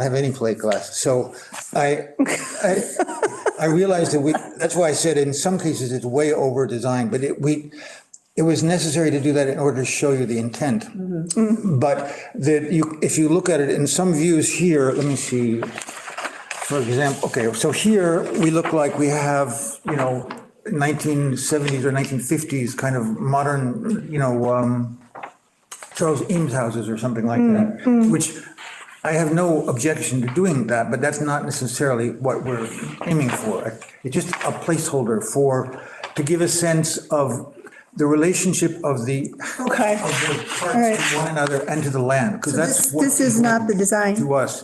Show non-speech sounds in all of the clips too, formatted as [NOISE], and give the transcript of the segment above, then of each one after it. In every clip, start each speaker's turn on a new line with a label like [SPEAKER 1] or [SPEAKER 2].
[SPEAKER 1] I have any plate glass. So I, I, I realized that we, that's why I said in some cases it's way over designed, but it, we, it was necessary to do that in order to show you the intent. But that you, if you look at it in some views here, let me see. For example, okay, so here we look like we have, you know, 1970s or 1950s kind of modern, you know, um, Charles Eames houses or something like that, which I have no objection to doing that, but that's not necessarily what we're aiming for. It's just a placeholder for, to give a sense of the relationship of the.
[SPEAKER 2] Okay.
[SPEAKER 1] Of the
[SPEAKER 2] All right.
[SPEAKER 1] parts to one another and to the land, because that's.
[SPEAKER 2] This
[SPEAKER 1] what
[SPEAKER 2] this is not the design.
[SPEAKER 1] to us.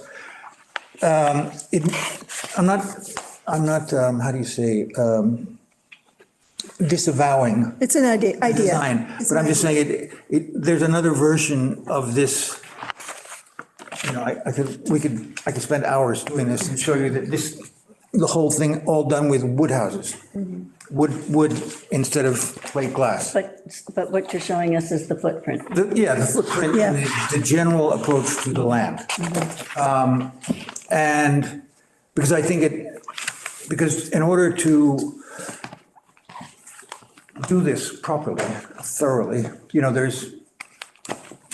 [SPEAKER 1] Um, It, I'm not, I'm not, um, how do you say, um, disavowing
[SPEAKER 2] It's an idea. idea.
[SPEAKER 1] design,
[SPEAKER 2] It's
[SPEAKER 1] but
[SPEAKER 2] an
[SPEAKER 1] I'm just saying, it, it, there's another version of this. You know, I, I could, we could, I could spend hours doing this and show you that this, the whole thing all done with wood houses.
[SPEAKER 2] Mm-hmm.
[SPEAKER 1] Wood, wood instead of plate glass.
[SPEAKER 3] But, but what you're showing us is the footprint.
[SPEAKER 1] The- Yeah, the footprint,
[SPEAKER 2] Yeah.
[SPEAKER 1] and the- the general approach to the land. Um, And, because I think it, because in order to do this properly, thoroughly, you know, there's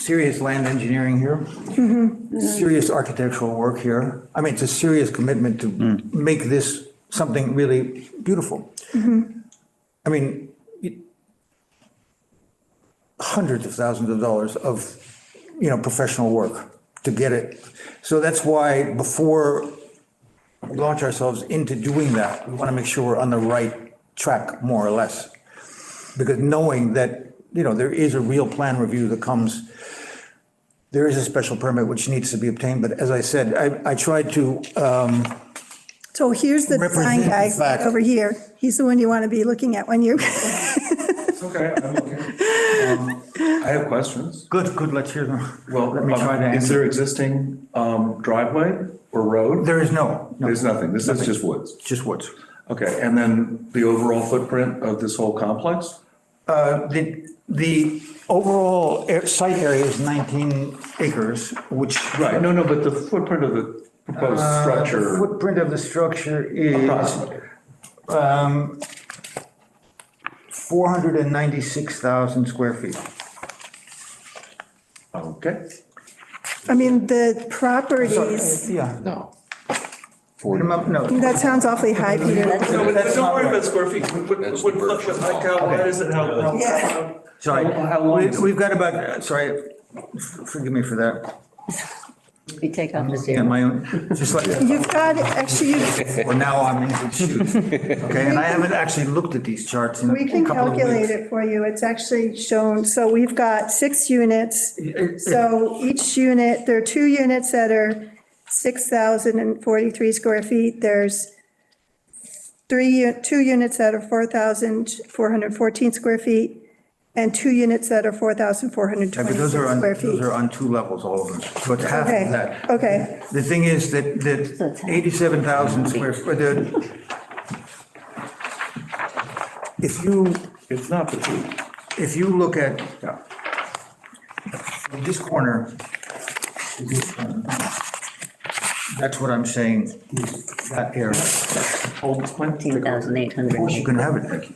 [SPEAKER 1] serious land engineering here, serious architectural work here. I mean, it's a serious commitment to make this something really beautiful. I mean, hundreds of thousands of dollars of, you know, professional work to get it. So that's why before we launch ourselves into doing that, we want to make sure we're on the right track, more or less. Because knowing that, you know, there is a real plan review that comes, there is a special permit which needs to be obtained, but as I said, I, I tried to, um,
[SPEAKER 2] So here's the design
[SPEAKER 1] Represent
[SPEAKER 2] guy
[SPEAKER 1] the fact.
[SPEAKER 2] over here. He's the one you want to be looking at when you, [LAUGHS]
[SPEAKER 4] It's okay, I'm okay. Um, I have questions.
[SPEAKER 1] good, good, let's hear them.
[SPEAKER 4] Well,
[SPEAKER 1] Let me try to
[SPEAKER 4] um, is
[SPEAKER 1] answer.
[SPEAKER 4] there existing um, driveway or road?
[SPEAKER 1] There is no, no,
[SPEAKER 4] There's nothing, this is just woods.
[SPEAKER 1] just woods.
[SPEAKER 4] Okay, and then the overall footprint of this whole complex?
[SPEAKER 1] Uh, The, the overall air- site area is 19 acres, which.
[SPEAKER 4] Right, no, no, but the footprint of the proposed
[SPEAKER 1] Uh, The
[SPEAKER 4] structure,
[SPEAKER 1] Footprint of the structure is
[SPEAKER 4] approximately.
[SPEAKER 1] um, 496,000 square feet.
[SPEAKER 4] Okay,
[SPEAKER 2] I mean, the
[SPEAKER 1] So, uh,
[SPEAKER 2] properties,
[SPEAKER 1] Yeah.
[SPEAKER 5] No.
[SPEAKER 1] Minimum- No,
[SPEAKER 2] that sounds awfully high, Peter.
[SPEAKER 6] No, but
[SPEAKER 1] That's
[SPEAKER 6] don't
[SPEAKER 1] not
[SPEAKER 6] worry
[SPEAKER 1] right.
[SPEAKER 6] about square feet. What, what,
[SPEAKER 5] That's
[SPEAKER 6] what,
[SPEAKER 5] the
[SPEAKER 6] what,
[SPEAKER 5] version.
[SPEAKER 6] like, how wide is it? How?
[SPEAKER 2] Yeah.
[SPEAKER 1] sorry.
[SPEAKER 4] How long
[SPEAKER 1] We-
[SPEAKER 4] is it?
[SPEAKER 1] We've got about, uh, sorry, f- forgive me for that.
[SPEAKER 3] We take off the
[SPEAKER 1] Yeah,
[SPEAKER 3] zero.
[SPEAKER 1] my own, just like,
[SPEAKER 2] You've got, actually, you-
[SPEAKER 1] or now I'm in good shoes.
[SPEAKER 4] [LAUGHS]
[SPEAKER 1] Okay, and I haven't actually looked at these charts in a
[SPEAKER 2] we can
[SPEAKER 1] couple of
[SPEAKER 2] calculate
[SPEAKER 1] weeks.
[SPEAKER 2] it for you. It's actually shown, so we've got six units. So each unit, there are two units that are 6,043 square feet. There's three, u- two units that are 4,414 square feet and two units that are
[SPEAKER 1] Yeah, but those are
[SPEAKER 2] 4,426
[SPEAKER 1] on,
[SPEAKER 2] square
[SPEAKER 1] those
[SPEAKER 2] feet.
[SPEAKER 1] are on two levels, all of them, but half of
[SPEAKER 2] Okay,
[SPEAKER 1] that.
[SPEAKER 2] okay.
[SPEAKER 1] The thing is that, that 87,000 square, foot. the, if you,
[SPEAKER 4] it's not the two.
[SPEAKER 1] if you look at uh, this corner, this corner, that's what I'm saying, is that area.
[SPEAKER 4] Old plan.
[SPEAKER 3] Fourteen thousand eight
[SPEAKER 1] Of course, you can
[SPEAKER 3] hundred,
[SPEAKER 1] have it, Ricky.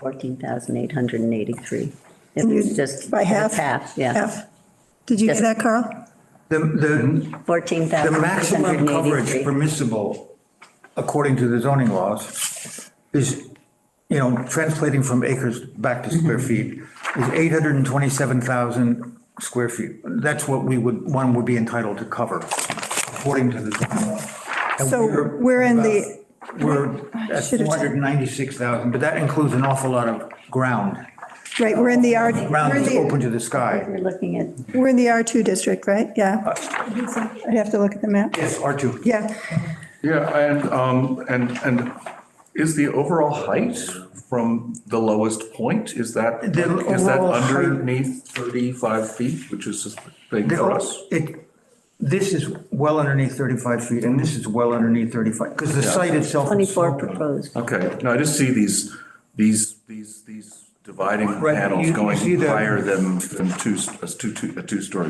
[SPEAKER 3] fourteen thousand eight hundred and eighty-three.
[SPEAKER 2] And you-
[SPEAKER 3] It's just.
[SPEAKER 2] Mm, By half?
[SPEAKER 3] Half, yeah.
[SPEAKER 2] Half. Did you get
[SPEAKER 3] Yes.
[SPEAKER 2] that, Carl?
[SPEAKER 1] The, the
[SPEAKER 3] Fourteen
[SPEAKER 1] The
[SPEAKER 3] thousand eight hundred
[SPEAKER 1] maximum
[SPEAKER 3] and
[SPEAKER 1] coverage
[SPEAKER 3] eighty-three.
[SPEAKER 1] permissible, according to the zoning laws, is, you know, translating from acres back to square
[SPEAKER 2] Mm-hmm.
[SPEAKER 1] feet, is 827,000 square feet. That's what we would, one would be entitled to cover, according to the zoning law. And
[SPEAKER 2] So we're in the,
[SPEAKER 1] We're at
[SPEAKER 2] Should've said-
[SPEAKER 1] 496,000, but that includes an awful lot of ground.
[SPEAKER 2] right, we're in the R, we're
[SPEAKER 1] Ground
[SPEAKER 2] in
[SPEAKER 1] is open
[SPEAKER 2] the,
[SPEAKER 1] to the sky.
[SPEAKER 3] We're looking at,
[SPEAKER 2] we're in the R2 district, right? Yeah. I'd have to look at the map.
[SPEAKER 1] Yes, R2.
[SPEAKER 2] Yeah,
[SPEAKER 4] Yeah, and, um, and, and is the overall height from the lowest point, is that,
[SPEAKER 1] The
[SPEAKER 4] is that
[SPEAKER 1] overall height-
[SPEAKER 4] underneath 35 feet, which is a big
[SPEAKER 1] The-
[SPEAKER 4] for us?
[SPEAKER 1] It, this is well underneath 35 feet, and this is well underneath 35, because the site itself. is
[SPEAKER 3] twenty-four
[SPEAKER 1] sloping.
[SPEAKER 3] proposed.
[SPEAKER 4] Okay, no, I just see these, these, these, these dividing
[SPEAKER 1] Right, you-
[SPEAKER 4] panels
[SPEAKER 1] you
[SPEAKER 4] going
[SPEAKER 1] see the-
[SPEAKER 4] higher than, than two, a two, two- a two-story